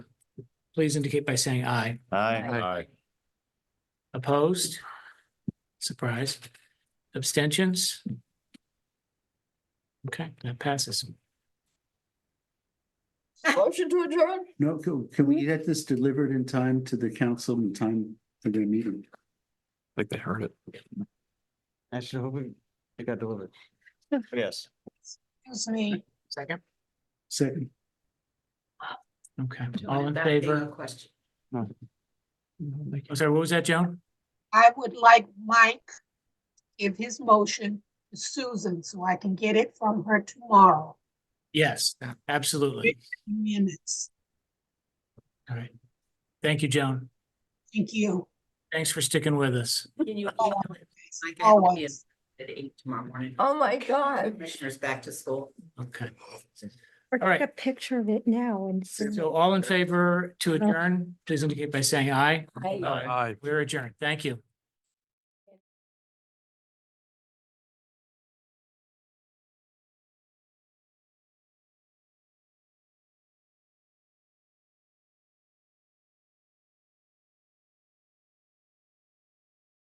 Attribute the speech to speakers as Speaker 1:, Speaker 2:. Speaker 1: please indicate by saying aye.
Speaker 2: Aye.
Speaker 3: Aye.
Speaker 1: Opposed? Surprise. Abstentions? Okay, that passes.
Speaker 4: Motion to adjourn?
Speaker 5: No, can, can we get this delivered in time to the council in time for their meeting?
Speaker 2: think they heard it.
Speaker 3: I should hope it- it got delivered. Yes.
Speaker 4: Excuse me.
Speaker 1: Second.
Speaker 5: Second,
Speaker 1: Okay, all in favor?
Speaker 4: Question.
Speaker 1: I'm Sorry, what was that, Joan?
Speaker 6: I would like Mike to give his motion to Susan so I can get it from her tomorrow,
Speaker 1: Yes, absolutely.
Speaker 6: in minutes.
Speaker 1: All right. Thank you, Joan.
Speaker 6: Thank you,
Speaker 1: Thanks for sticking with us.
Speaker 7: Can you email it? I can be
Speaker 6: always.
Speaker 7: at eight tomorrow morning.
Speaker 4: Oh, my God.
Speaker 7: Commissioners back to school.
Speaker 1: Okay.
Speaker 8: Or
Speaker 1: All right.
Speaker 8: take a picture of it now and. send it.
Speaker 1: So all in favor to adjourn, please indicate by saying aye.
Speaker 7: Aye.
Speaker 1: We're adjourned. Thank you.